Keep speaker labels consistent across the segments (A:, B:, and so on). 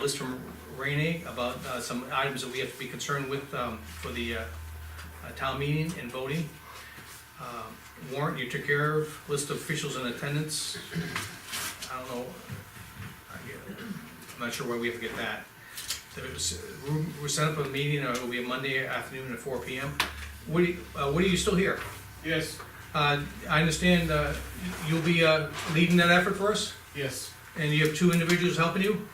A: list from Renee about uh, some items that we have to be concerned with um, for the uh, uh, town meeting and voting. Uh, Warrant you took care of, list of officials in attendance. I don't know. I get- I'm not sure where we have to get that. There was- We set up a meeting, uh, it'll be a Monday afternoon at four P M. Woody, uh, Woody, you still here?
B: Yes,
A: Uh, I understand uh, you'll be uh, leading that effort for us,
B: yes,
A: and you have two individuals helping you?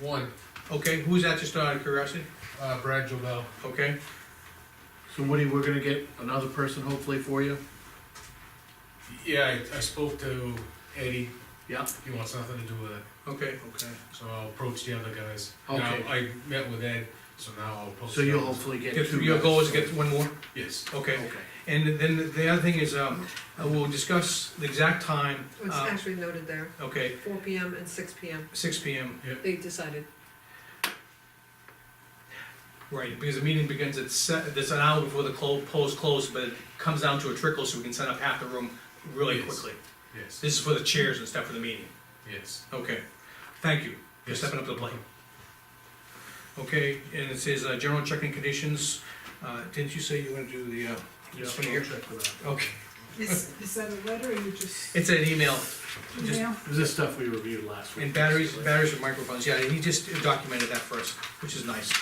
B: one,
A: Okay, who's that, just out of curiosity?
B: uh, Brad Jobel.
A: Okay,
C: So Woody, we're gonna get another person hopefully for you?
B: Yeah, I, I spoke to Eddie,
C: Yeah?
B: he wants nothing to do with it,
A: okay.
C: Okay.
B: so I'll approach the other guys.
C: Okay.
B: Now, I met with Ed, so now I'll approach.
C: So
B: the
C: you'll
B: others.
C: hopefully get
A: Get-
C: two.
A: Your goal is
C: guys.
A: to get one more?
B: Yes,
A: Okay.
C: Okay.
A: And then the other thing is, um, uh, we'll discuss the exact time,
D: It's
A: uh,
D: actually noted there,
A: okay,
D: four P M and six P M,
A: six P M,
D: they decided.
A: right, because the meeting begins at se- that's an hour before the clo- polls close, but it comes down to a trickle, so we can set up half the room really
B: Yes.
A: quickly.
B: yes,
A: This is for the chairs and stuff for the meeting.
B: yes.
A: Okay, thank you for
B: Yes.
A: stepping up to the plate. Okay, and it says, uh, general checking conditions, uh, didn't you say you wanna do the, uh,
C: Yeah,
A: this one here?
C: I'll check for that.
A: Okay,
E: Is, is that a letter or you just?
A: it's an email, just
E: email?
C: This is stuff we reviewed last week.
A: And batteries,
C: basically.
A: batteries with microphones, yeah, he just documented that for us, which is nice.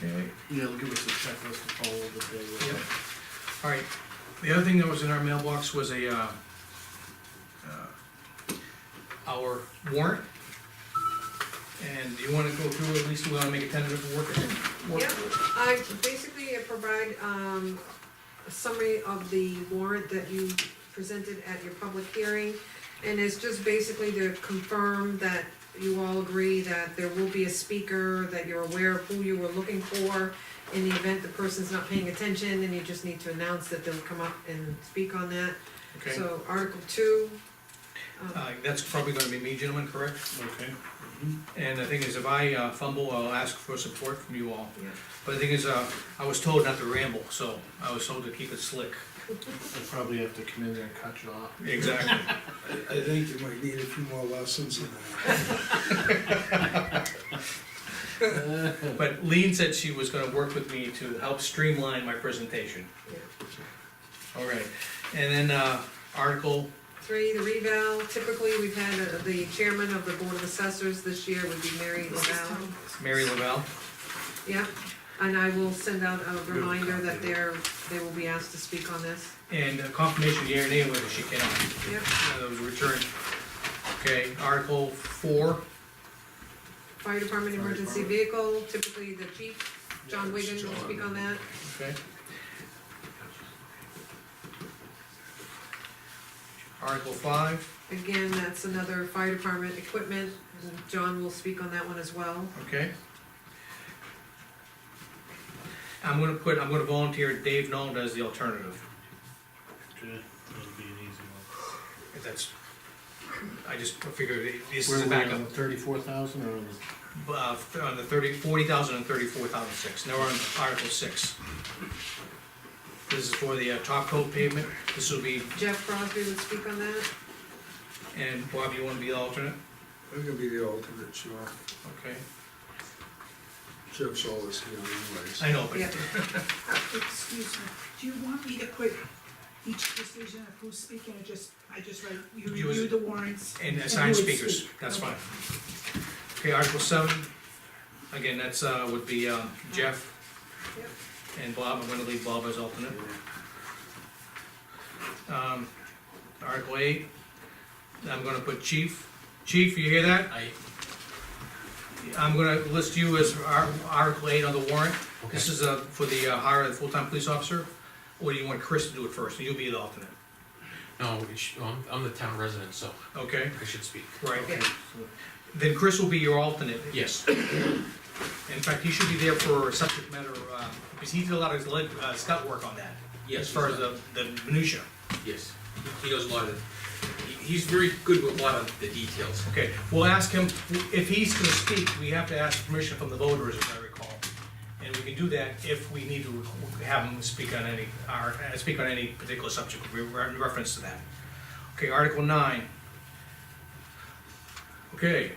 A: Okay,
C: Yeah, they'll give us a checklist to follow the day. with.
A: Yep. all right, the other thing that was in our mailbox was a, uh, uh, our warrant. And do you wanna go through, at least we wanna make a tentative work? work-
D: Yeah, I basically I provide, um, a summary of the warrant that you presented at your public hearing. And it's just basically to confirm that you all agree that there will be a speaker, that you're aware of who you were looking for. In the event the person's not paying attention, then you just need to announce that they'll come up and speak on that.
A: Okay,
D: So Article two. um,
A: uh, that's probably gonna be me, gentlemen, correct?
C: Okay.
A: And the thing is, if I uh, fumble, I'll ask for support from you all.
D: Yeah.
A: But the thing is, uh, I was told not to ramble, so I was told to keep it slick.
C: I'll probably have to come in there and cut you off.
A: Exactly.
F: I think you might need a few more lessons in that.
A: But Lean said she was gonna work with me to help streamline my presentation.
D: Yeah.
A: All right, and then, uh, Article,
D: Three, the reval, typically, we've had uh, the chairman of the board of assessors this year would be Mary
E: This is
D: Laval.
E: Tom.
A: Mary Lavelle,
D: Yeah, and I will send out a reminder that they're, they will be asked to speak on this.
A: and confirmation year and whether she can,
D: Yep,
A: uh, that was returned. Okay, Article four,
D: fire department emergency vehicle, typically the chief, John Wigan will speak on that.
A: okay. Article five,
D: Again, that's another fire department equipment, John will speak on that one as well.
A: okay. I'm gonna put, I'm gonna volunteer Dave Nolan as the alternative.
C: Good, that'll be an easy
A: If that's, I just figured this
C: one.
A: is a
C: Where were we
A: backup.
C: on the thirty-four thousand or on the?
A: Uh, on the thirty, forty thousand and thirty-four thousand six, now we're on Article six. This is for the uh, top coat pavement, this will be,
D: Jeff Crosby would speak on that.
A: and Bob, you wanna be the alternate?
F: I'm gonna be the alternate, sure.
A: Okay,
F: Jeff's always here anyways.
A: I know, but,
D: Yeah,
E: Excuse me, do you want me to put each decision of who's speaking or just, I just write, you
A: You was-
E: review the warrants?
A: and
E: who
A: assign
E: would
A: speakers,
E: speak?
A: that's
E: Okay.
A: fine. Okay, Article seven, again, that's, uh, would be, uh, Jeff.
D: Yep.
A: And Bob, I'm gonna leave Bob as alternate. Um, Article eight, I'm gonna put chief, chief, you hear that?
B: I,
A: I'm gonna list you as Ar- Article eight on the warrant. This
B: okay,
A: is uh, for the uh, hire of the full-time police officer, or do you want Chris to do it first, and you'll be the alternate,
G: No, we should- I'm, I'm the town resident, so
A: okay?
G: I should speak.
A: Right,
D: yeah,
A: then Chris will be your alternate.
G: Yes,
A: In fact, he should be there for subject matter, uh, because he did a lot of his leg, uh, scout work on that.
G: yes.
A: As far as the, the minutia.
G: Yes, he does a lot of, he- he's very good with a lot of the details.
A: Okay, we'll ask him, if he's gonna speak, we have to ask permission from the voters, if I recall. And we can do that if we need to have him speak on any, or, uh, speak on any particular subject, we re- in reference to that. Okay, Article nine. Okay,